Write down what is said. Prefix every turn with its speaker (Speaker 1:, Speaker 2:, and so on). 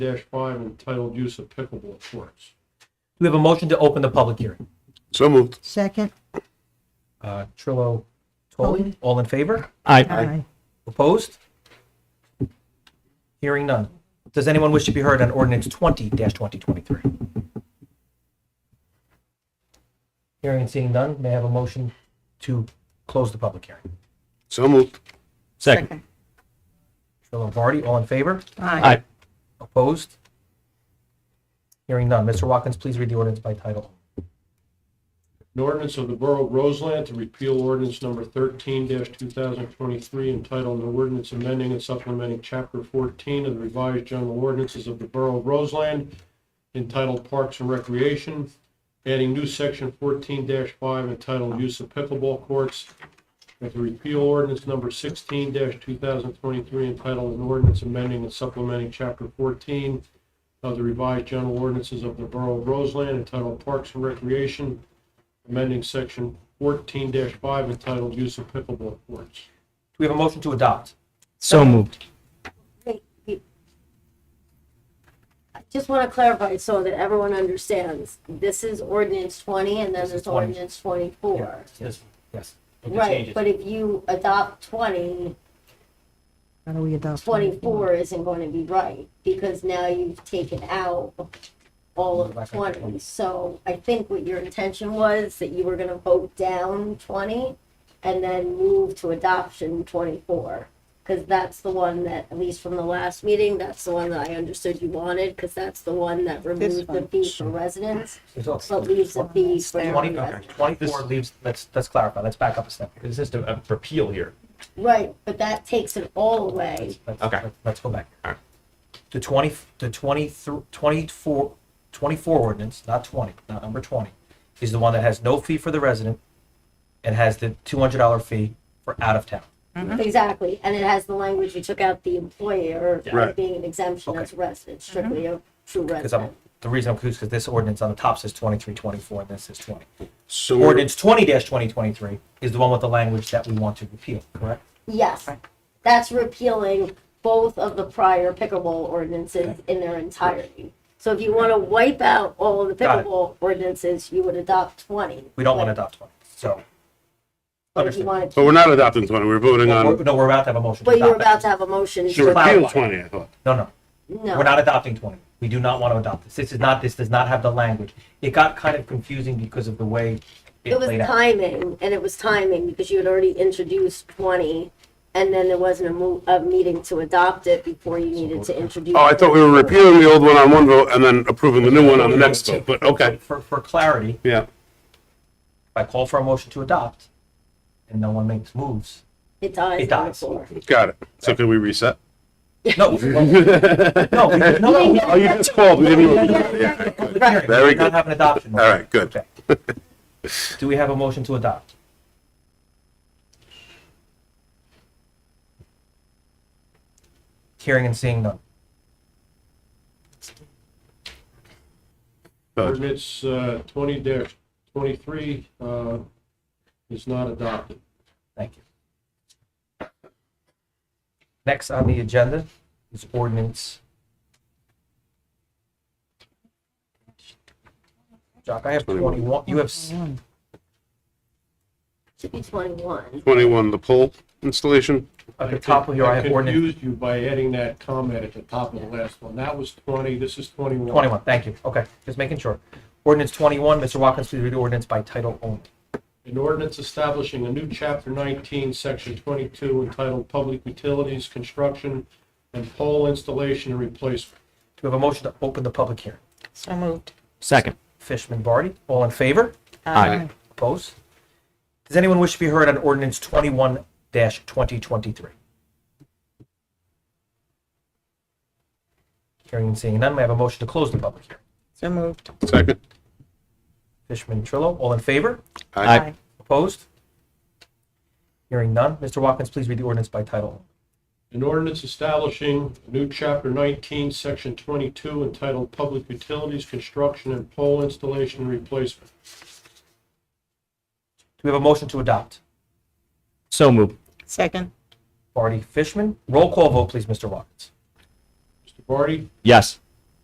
Speaker 1: dash five entitled Use of Pickleball Courts.
Speaker 2: We have a motion to open the public hearing.
Speaker 3: So moved.
Speaker 4: Second?
Speaker 2: Uh, Trillo, Toley, all in favor?
Speaker 4: Aye.
Speaker 2: Opposed? Hearing none. Does anyone wish to be heard on ordinance twenty twenty twenty-three? Hearing and seeing none, may I have a motion to close the public hearing?
Speaker 3: So moved.
Speaker 5: Second.
Speaker 2: Trillo and Vardy, all in favor?
Speaker 5: Aye.
Speaker 2: Opposed? Hearing none. Mr. Watkins, please read the ordinance by title.
Speaker 1: An ordinance of the Borough of Roseland to repeal ordinance number thirteen two thousand twenty-three entitled an ordinance amending and supplementing chapter fourteen of the revised general ordinances of the Borough of Roseland entitled Parks and Recreation, adding new section fourteen five entitled Use of Pickleball Courts, and to repeal ordinance number sixteen two thousand twenty-three entitled an ordinance amending and supplementing chapter fourteen of the revised general ordinances of the Borough of Roseland entitled Parks and Recreation, amending section fourteen five entitled Use of Pickleball Courts.
Speaker 2: Do we have a motion to adopt?
Speaker 5: So moved.
Speaker 6: Wait, wait. I just want to clarify so that everyone understands, this is ordinance twenty and then there's
Speaker 2: 20.
Speaker 6: ordinance twenty-four.
Speaker 2: Yes. Yes.
Speaker 6: Right, but if you adopt 20,
Speaker 4: How do we adopt?
Speaker 6: 24 isn't going to be right because now you've taken out all
Speaker 2: Go back
Speaker 6: of
Speaker 2: up to 20.
Speaker 6: twenty. So I think what your intention was that you were going to vote down twenty and then move to adoption twenty-four. Because that's the one that, at least from the last meeting, that's the one that I understood you wanted, because that's the one that removed the
Speaker 4: one.
Speaker 6: fee for residents, but leaves the fee for
Speaker 2: Twenty, okay,
Speaker 6: non-residents.
Speaker 2: twenty-four leaves, let's, let's clarify, let's back up a step.
Speaker 7: This is a a repeal here.
Speaker 6: Right, but that takes it all away.
Speaker 2: Let's-
Speaker 7: Okay.
Speaker 2: let's- Let's go back.
Speaker 7: Alright.
Speaker 2: The twenty, the twenty-three, twenty-four, twenty-four ordinance, not twenty, not number twenty, is the one that has no fee for the resident and has the two hundred dollar fee for out of town.
Speaker 6: Exactly, and it has the language, you took out the employer
Speaker 3: Right.
Speaker 6: being an exemption
Speaker 2: Okay.
Speaker 6: as resident, strictly a true
Speaker 2: Because I'm,
Speaker 6: resident.
Speaker 2: the reason I'm confused, because this ordinance on the top says twenty-three, twenty-four, and this is twenty.
Speaker 3: So we're-
Speaker 2: Ordinance twenty twenty twenty-three is the one with the language that we want to repeal, correct?
Speaker 6: Yes, that's repealing both of the prior pickleball ordinances in their entirety. So if you want to wipe out all of the
Speaker 2: Got it.
Speaker 6: pickleball ordinances, you would adopt twenty.
Speaker 2: We don't want to adopt twenty, so.
Speaker 6: But if you
Speaker 2: Understood.
Speaker 6: wanted
Speaker 3: but
Speaker 6: to-
Speaker 3: we're not adopting 20. We're voting
Speaker 2: We're-
Speaker 3: on,
Speaker 2: No, we're about to have a motion. to
Speaker 6: But you're
Speaker 2: adopt that.
Speaker 6: about to have a motion. to
Speaker 3: to repeal
Speaker 6: adopt.
Speaker 3: 20, I thought.
Speaker 2: No, no. We're
Speaker 6: No,
Speaker 2: not adopting 20. We do not want to adopt this. This is not, this does not have the language. It got kind of confusing because of the way it
Speaker 6: it was
Speaker 2: played out.
Speaker 6: timing, and it was timing because you had already introduced twenty, and then there wasn't a mo- a meeting to adopt it before you needed to introduce.
Speaker 3: Oh, I thought we were
Speaker 6: 24.
Speaker 3: repealing the old one on one vote and then approving the new one on the next vote, but okay,
Speaker 2: For, for clarity,
Speaker 3: yeah.
Speaker 2: if I call for a motion to adopt and no one makes moves,
Speaker 6: It dies
Speaker 2: It
Speaker 6: on the
Speaker 2: dies.
Speaker 6: floor.
Speaker 3: Got it. So can we reset?
Speaker 2: no, no, we- no, no.
Speaker 3: Oh, you just called. We didn't even. Yeah.
Speaker 2: Very
Speaker 3: Very
Speaker 2: We're not
Speaker 3: good.
Speaker 2: having adoption.
Speaker 3: All right, good.
Speaker 2: Okay. Do we have a motion to adopt? Hearing and seeing none.
Speaker 3: So
Speaker 1: Ordinance uh, twenty twenty-three uh, is not adopted.
Speaker 2: Thank you. Next on the agenda is ordinance. Jock, I have 21, you have, s-
Speaker 4: One.
Speaker 6: Should be twenty-one.
Speaker 3: 21, the pole installation.
Speaker 2: at the top of here, I have ordinance
Speaker 1: confused you by adding that comment at the top of the last one. That was twenty, this is twenty-one.
Speaker 2: 21, thank you, okay, just making sure. Ordinance 21, Mr. Watkins, please read the ordinance by title only.
Speaker 1: An ordinance establishing a new chapter nineteen, section twenty-two entitled Public Utilities, Construction, and Pole Installation and Replacement.
Speaker 2: Do we have a motion to open the public hearing?
Speaker 5: So moved. Second.
Speaker 2: Fishman, Barty, all in favor?
Speaker 5: Aye.
Speaker 2: Opposed? Does anyone wish to be heard on ordinance 21-2023? Hearing and seeing none, may I have a motion to close the public hearing?
Speaker 5: So moved.
Speaker 3: Second.
Speaker 2: Fishman, Trillo, all in favor?
Speaker 3: Aye.
Speaker 2: Opposed? Hearing none, Mr. Watkins, please read the ordinance by title.
Speaker 1: An ordinance establishing a new chapter nineteen, section twenty-two entitled Public Utilities, Construction, and Pole Installation and Replacement.
Speaker 2: Do we have a motion to adopt?
Speaker 7: So moved.
Speaker 5: Second.
Speaker 2: Barty, Fishman, roll call vote, please, Mr. Watkins.
Speaker 1: Mr. Barty,
Speaker 7: Yes.